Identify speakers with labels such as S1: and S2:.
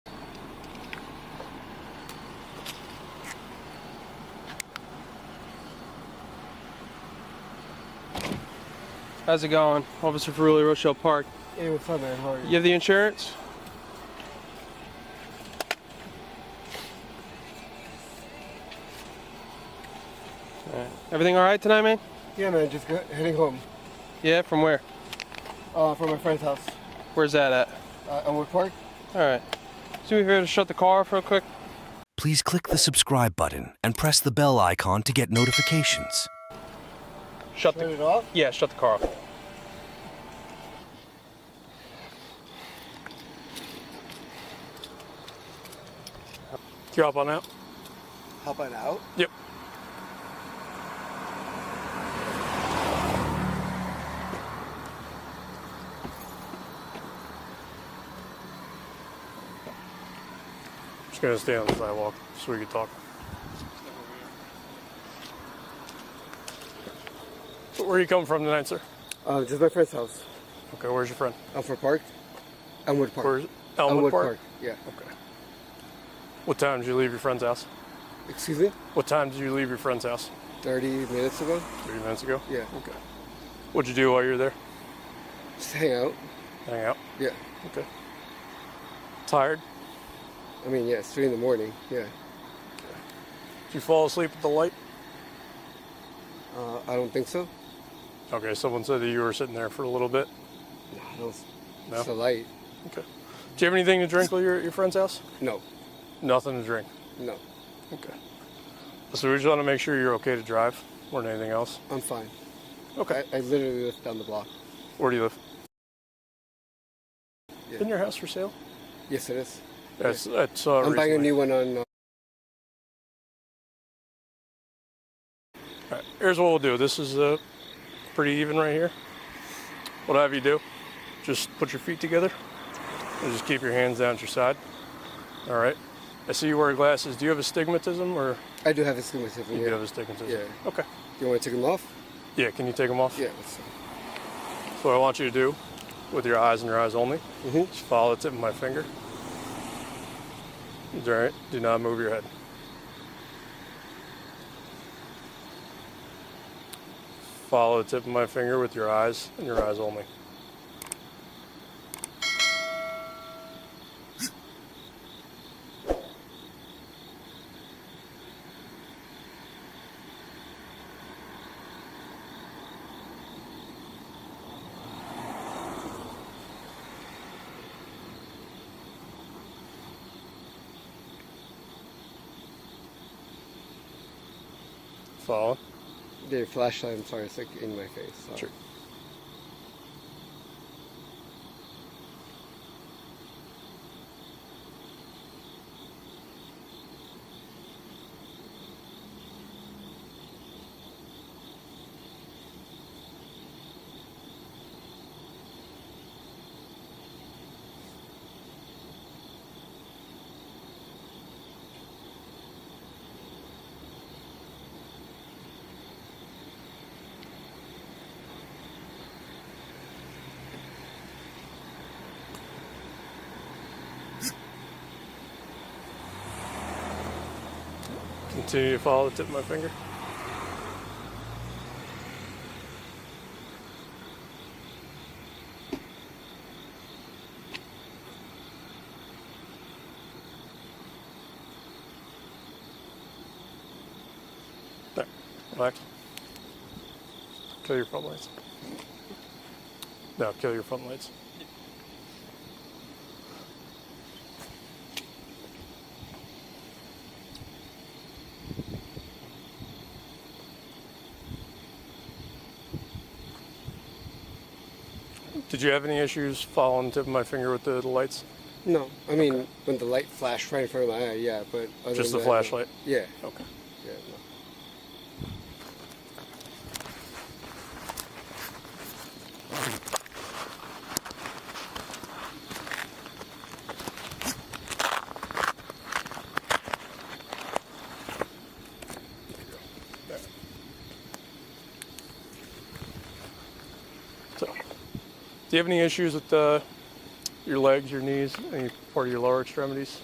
S1: How's it going? Officer Ferrulli, Rochelle Park.
S2: Hey, what's up, man? How are you?
S1: You have the insurance? Alright. Everything all right tonight, man?
S2: Yeah, man, just go- heading home
S1: Yeah, from where?
S2: uh, from my friend's house.
S1: Where's that at?
S2: Uh, Elmwood Park.
S1: All right. So we here to shut the car off real quick.
S3: Please click the subscribe button and press the bell icon to get notifications.
S1: Shut
S2: Turn
S1: the
S2: it off.
S1: yeah, shut the car off.
S4: You up on that?
S2: Hop on out.
S4: Yep. Just gonna stay on the sidewalk so we can talk. So Where are you coming from tonight, sir?
S2: Uh, just my friend's house.
S4: Okay, where's your friend?
S2: Elmwood Park. Elmwood Park.
S4: Where's Elmwood, Park?
S2: Yeah.
S4: Okay. What time did you leave your friend's house?
S2: Excuse me.
S4: What time did you leave your friend's house?
S2: Thirty minutes ago.
S4: 30 minutes ago?
S2: Yeah.
S4: Okay. What'd you do while you were there?
S2: Just hang out.
S4: Hang out.
S2: Yeah.
S4: Okay. Tired?
S2: I mean, yeah, it's three in the morning. Yeah.
S4: Did you fall asleep at the light?
S2: Uh, I don't think so.
S4: Okay, someone said that you were sitting there for a little bit.
S2: No, I don't.
S4: No?
S2: It's the light.
S4: Okay. Do you have anything to drink while you're at your friend's house?
S2: No.
S4: Nothing to drink.
S2: No.
S4: Okay. So we just want to make sure you're okay to drive more than anything else.
S2: I'm fine.
S4: Okay.
S2: I, I literally live down the block.
S4: Where do you live?
S2: Yeah.
S4: Isn't your house for sale?
S2: Yes, it is.
S4: That's that's uh,
S2: I'm buying a
S4: recently.
S2: new one on. Uh,
S4: All right, here's what we'll do. This is uh, pretty even right here. What I have you do, just put your feet together and just keep your hands down at your side. All right. I see you wear glasses. Do you have astigmatism or
S2: I do have a astigmatism.
S4: you
S2: Yeah.
S4: do have astigmatism?
S2: Yeah.
S4: Okay.
S2: you want to take them off?
S4: Yeah, can you take them off?
S2: Yeah. That's fine.
S4: So what I want you to do with your eyes and your eyes only,
S2: Mhm.
S4: just follow the tip of my finger. It's all right. Do not move your head. Follow the tip of my finger with your eyes and your eyes only. Follow.
S2: The flashlight, I'm sorry, it's like in my face. so-
S4: Sure. Continue to follow the tip of my finger. There. Relax. Kill your front lights. No, kill your front lights. Did you have any issues following the tip of my finger with the, the lights?
S2: No, I mean, when the light flashed right in front of my eye, yeah, but. Other
S4: Just
S2: than
S4: the
S2: that, no.
S4: flashlight?
S2: Yeah,
S4: Okay.
S2: yeah. No.
S4: So, do you have any issues with uh, your legs, your knees, any part of your lower extremities?